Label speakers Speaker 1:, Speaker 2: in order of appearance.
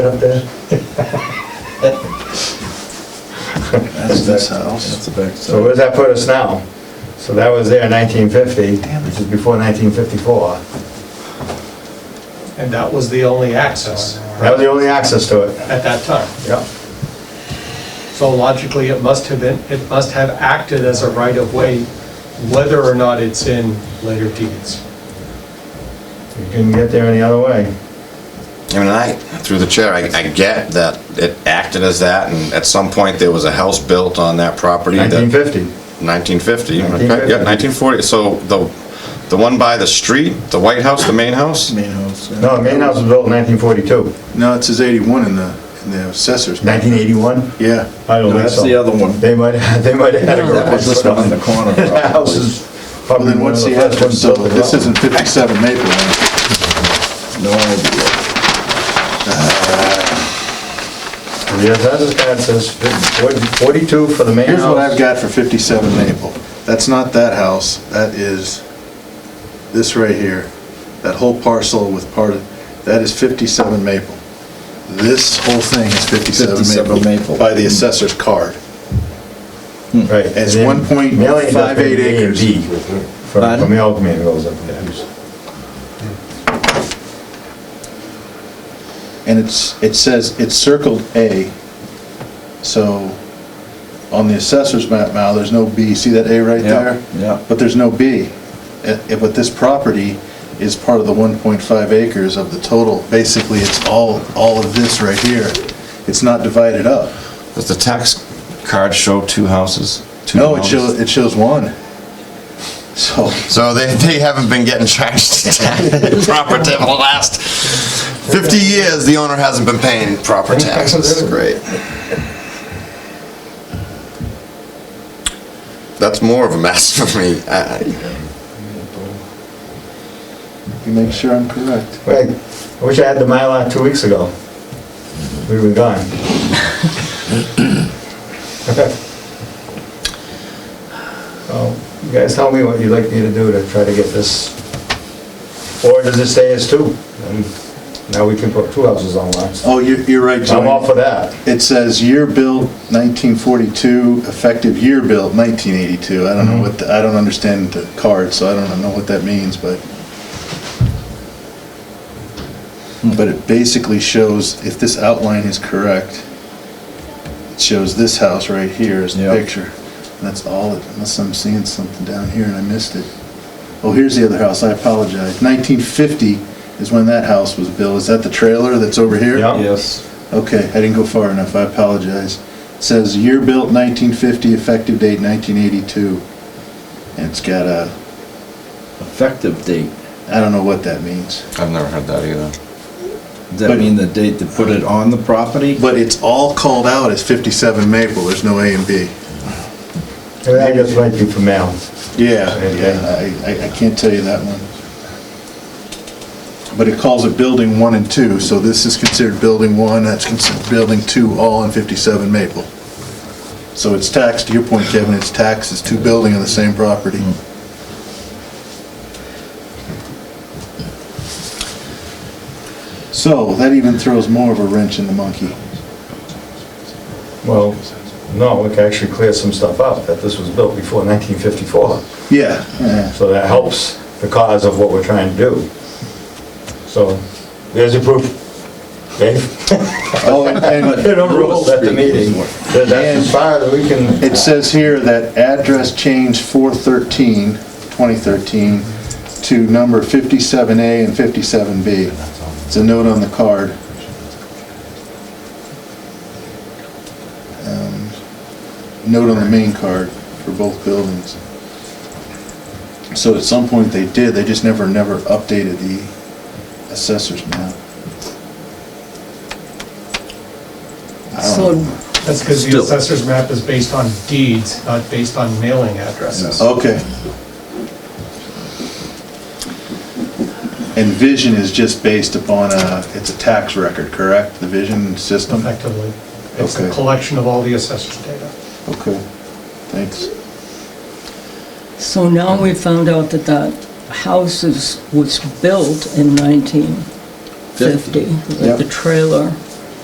Speaker 1: up there.
Speaker 2: That's this house.
Speaker 3: That's the back
Speaker 1: So
Speaker 3: side.
Speaker 1: where does that put us now? So that was there in 1950,
Speaker 2: Damn it.
Speaker 1: which is before 1954.
Speaker 4: And that was the only access
Speaker 1: That was the only access to it.
Speaker 4: at that time.
Speaker 1: Yep.
Speaker 4: So logically, it must have been, it must have acted as a right-of-way, whether or not it's in later deeds.
Speaker 1: You couldn't get there any other way.
Speaker 5: I mean, I, through the chair, I, I get that it acted as that, and at some point, there was a house built on that property. that-
Speaker 1: 1950.
Speaker 5: 1950, okay, yeah, 1940, so the, the one by the street, the White House, the main house?
Speaker 2: Main house. yeah.
Speaker 1: No, the main house was built in 1942.
Speaker 2: No, it says 81 in the, in the assessors.
Speaker 1: 1981?
Speaker 2: Yeah.
Speaker 1: I don't think
Speaker 3: No, that's
Speaker 1: so.
Speaker 3: the other one.
Speaker 1: They might, they might have had a
Speaker 3: That
Speaker 1: garage.
Speaker 3: was this one in the corner.
Speaker 1: That house
Speaker 3: probably.
Speaker 1: is
Speaker 2: Well,
Speaker 1: probably
Speaker 2: then
Speaker 1: one of
Speaker 2: what's
Speaker 1: the
Speaker 2: the
Speaker 1: first
Speaker 2: other,
Speaker 1: ones
Speaker 2: so
Speaker 1: built. in
Speaker 2: this
Speaker 1: Rutland.
Speaker 2: isn't 57 Maple Lane.
Speaker 3: No idea.
Speaker 1: Yeah, that's what that says, 42 for the main house.
Speaker 2: Here's what I've got for 57 Maple. That's not that house, that is this right here. That whole parcel with part of, that is 57 Maple. This whole thing is 57 Maple.
Speaker 3: 57 Maple.
Speaker 2: By the assessor's card.
Speaker 1: Right.
Speaker 2: It's
Speaker 1: and then
Speaker 2: 1.58
Speaker 1: Millie does the A and
Speaker 2: acres.
Speaker 1: B From,
Speaker 3: Pardon?
Speaker 1: from the Alchemy it goes up there.
Speaker 2: And it's, it says, it's circled A, so on the assessor's map now, there's no B. See that A right
Speaker 3: Yeah,
Speaker 2: there?
Speaker 3: yeah.
Speaker 2: But there's no B. Eh, eh, But this property is part of the 1.5 acres of the total. Basically, it's all, all of this right here. It's not divided up.
Speaker 5: Does the tax card show two houses? Two
Speaker 2: No, it
Speaker 5: homes?
Speaker 2: shows, it shows one. So,
Speaker 5: So they, they haven't been getting charged proper tax for the last 50 years, the owner hasn't been paying proper taxes, great. That's more of a mess for me, I, I-
Speaker 2: you make sure I'm correct.
Speaker 1: Right, I wish I had the Mylar two weeks ago. We were gone. Well, You guys tell me what you'd like me to do to try to get this, or does it stay as two? And Now we can put two houses on lots.
Speaker 2: Oh, you're, you're right, Tony.
Speaker 1: I'm all for that.
Speaker 2: It says year built 1942, effective year built 1982. I don't know what, the- I don't understand the card, so I don't know what that means, but. But it basically shows, if this outline is correct, it shows this house right here is the
Speaker 3: Yeah.
Speaker 2: picture. And that's all, it- unless I'm seeing something down here and I missed it. Oh, here's the other house, I apologize. 1950 is when that house was built. Is that the trailer that's over here?
Speaker 1: Yeah.
Speaker 3: Yes.
Speaker 2: Okay, I didn't go far enough, I apologize. It Says year built 1950, effective date 1982. And it's got a,
Speaker 3: Effective date.
Speaker 2: I don't know what that means.
Speaker 5: I've never heard that either.
Speaker 3: Does that
Speaker 2: But-
Speaker 3: mean the date to put it on the property?
Speaker 2: But it's all called out as 57 Maple, there's no A and B.
Speaker 1: And I guess might be for mail.
Speaker 2: Yeah,
Speaker 1: Okay.
Speaker 2: yeah, I, I- I can't tell you that one. But it calls it building one and two, so this is considered building one, that's considered building two, all in 57 Maple. So it's taxed, to your point, Kevin, it's taxed, it's two building on the same property. So that even throws more of a wrench in the monkey.
Speaker 1: Well, no, we can actually clear some stuff up, that this was built before 1954.
Speaker 2: Yeah, yeah.
Speaker 1: So that helps the cause of what we're trying to do. So, there's your proof. Dave?
Speaker 2: Oh, and- and-
Speaker 1: It overruled at the meeting. That- That's as far as we
Speaker 2: It
Speaker 1: can,
Speaker 2: says here that address change 413, 2013, to number 57A and 57B. It's a note on the card. Um, Note on the main card for both buildings. So at some point they did, they just never, never updated the assessor's map. I don't know.
Speaker 6: So
Speaker 4: That's because the
Speaker 3: Still.
Speaker 4: assessor's map is based on deeds, not based on mailing addresses.
Speaker 2: Okay. And vision is just based upon a, it's a tax record, correct? The vision system?
Speaker 4: Effectively, it's a
Speaker 2: Okay.
Speaker 4: collection of all the assessor's data.
Speaker 2: Okay, thanks.
Speaker 6: So now we found out that that house is, was built in 1950,
Speaker 3: Fifty.
Speaker 6: with the trailer.